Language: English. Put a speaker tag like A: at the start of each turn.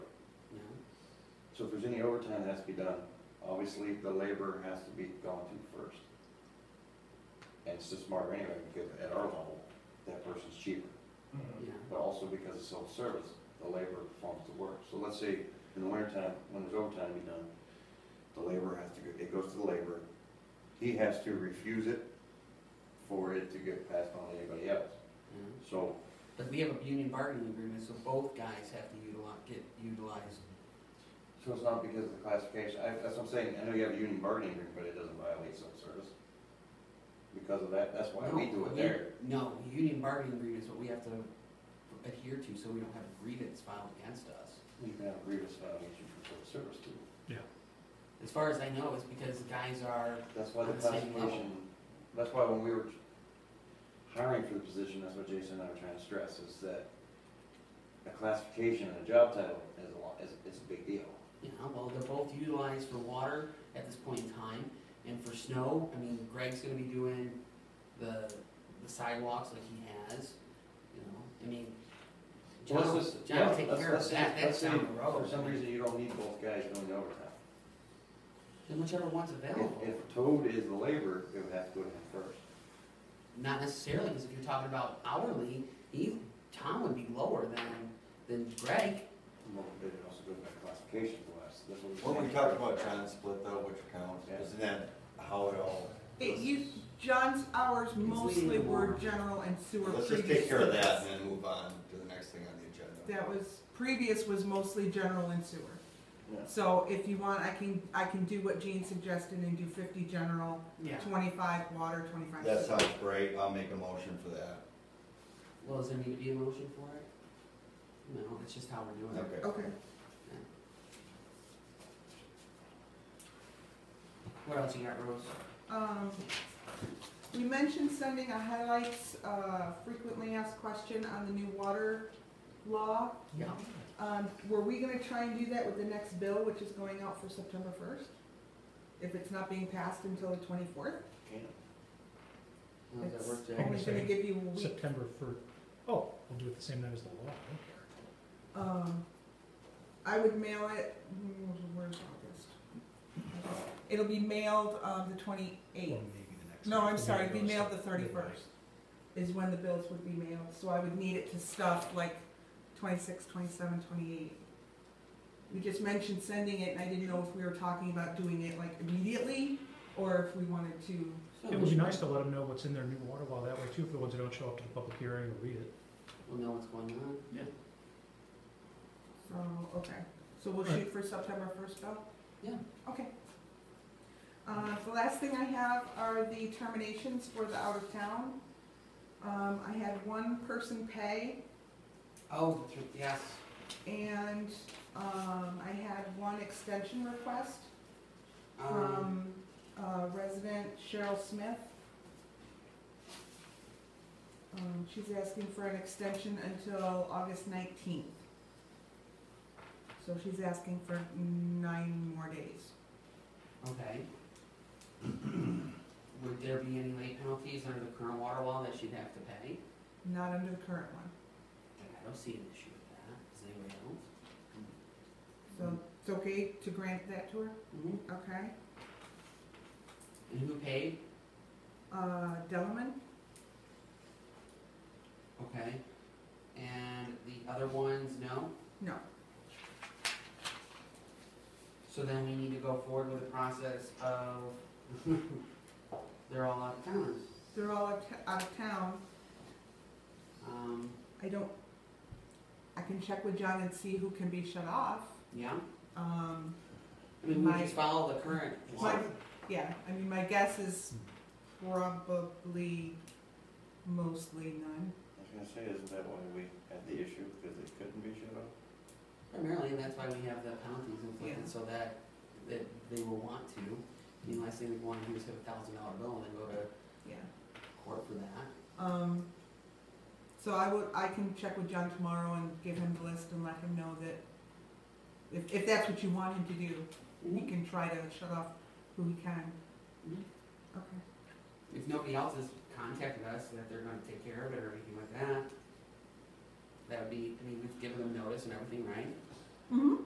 A: So if there's any overtime that has to be done, obviously the labor has to be gone through first. And it's just smarter anyway, because at our level, that person's cheaper.
B: Yeah.
A: But also because it's self-service, the labor performs the work. So let's say in the wintertime, when there's overtime to be done, the labor has to, go. it goes to the labor. He has to refuse it for it to get passed on to anybody else.
B: yeah.
A: So
B: But we have a union bargaining agreement, so both guys have to utilize, get utilized.
A: So it's not because of the classification, I, that's what I'm saying, I know you have a union bargaining agreement, but it doesn't violate civil service. Because of that, that's why we
B: No,
A: do it
B: you-
A: there.
B: No, union bargaining agreement is what we have to adhere to, so we don't have grievance filed against us.
A: You can have a grievance violation for civil service too.
B: As far as I know, it's because the guys are,
A: That's why the
B: On the same
A: classification, that's why when we were hiring for the position, that's what Jason and I were trying to stress, is that a classification and a job title is a lot, is, is a big deal.
B: you know, well, they're both utilized for water at this point in time, and for snow, I mean, Greg's gonna be doing the, the sidewalks like he has, you know, I mean, John,
A: Well,
B: John
A: let's just- yeah,
B: will take
A: let's-
B: care
A: let's
B: of
A: say-
B: that,
A: let's
B: that's
A: say
B: down the road.
A: For some reason, you don't need both guys doing the overtime.
B: Then whichever one's available.
A: If, if Toad is the laborer, it would have to go to him first.
B: Not necessarily, because if you're talking about hourly, he, Tom would be lower than, than Greg.
A: Well, but it also goes back to classification for us, that's what we.
C: When we talked about time split though, which accounts, isn't that how it all,
D: It used, John's hours mostly were general and sewer
C: let's
D: previous.
C: just take care of that and then move on to the next thing on the agenda.
D: That was, previous was mostly general and sewer.
A: Yeah.
D: So if you want, I can, I can do what Gene suggested and do fifty general,
B: Yeah.
D: twenty-five water, twenty-five.
C: That
D: sewer.
C: sounds great, I'll make a motion for that.
B: Well, does there need to be a motion for it? No, it's just how we're doing it.
C: Okay.
D: Okay,
B: What else you got, Rose?
D: um, we mentioned sending a highlights, uh, frequently asked question on the new water law.
B: Yeah.
D: Um, were we gonna try and do that with the next bill, which is going out for September first? If it's not being passed until the twenty-fourth?
A: Can.
B: How does that work,
D: It's
B: Jay?
D: only gonna give you a week.
E: September first, oh, we'll do it the same night as the law, I
D: Um, I would mail it, mm, where's August? It'll be mailed, um, the
E: don't care. Or
D: twenty-eighth,
E: maybe the next
D: No,
E: night.
D: I'm sorry,
E: Maybe
D: we
E: it
D: mailed
E: goes
D: the 31st. is when the bills would be mailed, so I would need it to stuff like 26, 27, 28. We just mentioned sending it, and I didn't know if we were talking about doing it like immediately, or if we wanted to,
E: midnight. It would be nice to let them know what's in their new water law, that way too, for the ones who don't show up to the public hearing or read it.
B: We'll know what's going on.
D: so, Oh, okay. So we'll
E: Right.
D: shoot for September first, Bill?
B: Yeah.
D: Okay. Uh, the last thing I have are the terminations for the out of town. Um, I had one person pay,
B: Oh, thr- yes,
D: and, um, I had one extension request.
B: um,
D: from uh, resident Cheryl Smith. Um, She's asking for an extension until August 19th. So she's asking for nine more days.
B: okay. Would there be any late penalties under the current water law that she'd have to pay?
D: Not under the current one.
B: I don't see an issue with that. Does anybody else?
D: So it's okay to grant that to her?
B: Mhm.
D: Okay.
B: And who paid?
D: Uh, Delaman,
B: Okay. And the other ones, no?
D: No.
B: So then we need to go forward with the process of, they're all out of towners.
D: they're all out of- out of town.
B: Um,
D: I don't, I can check with John and see who can be shut off.
B: yeah,
D: Um,
B: I mean, we
D: My-
B: just follow the current
D: My,
B: law.
D: yeah, I mean, my guess is probably mostly none.
A: I was gonna say, isn't that why we had the issue, because it couldn't be shut off?
B: Primarily, and that's why we have the penalties inflicted,
D: Yeah.
B: so that, that they will want to. I mean, last thing we want to do is have a thousand dollar bill and then go to
D: Yeah.
B: court for that.
D: Um, so I would, I can check with John tomorrow and give him the list and let him know that if, if that's what you want him to do, he can try to shut off who he can.
B: Mhm.
D: Okay.
B: If nobody else has contacted us that they're gonna take care of it or anything like that, that would be, I mean, we've given them notice and everything, right?
D: Mm-hmm.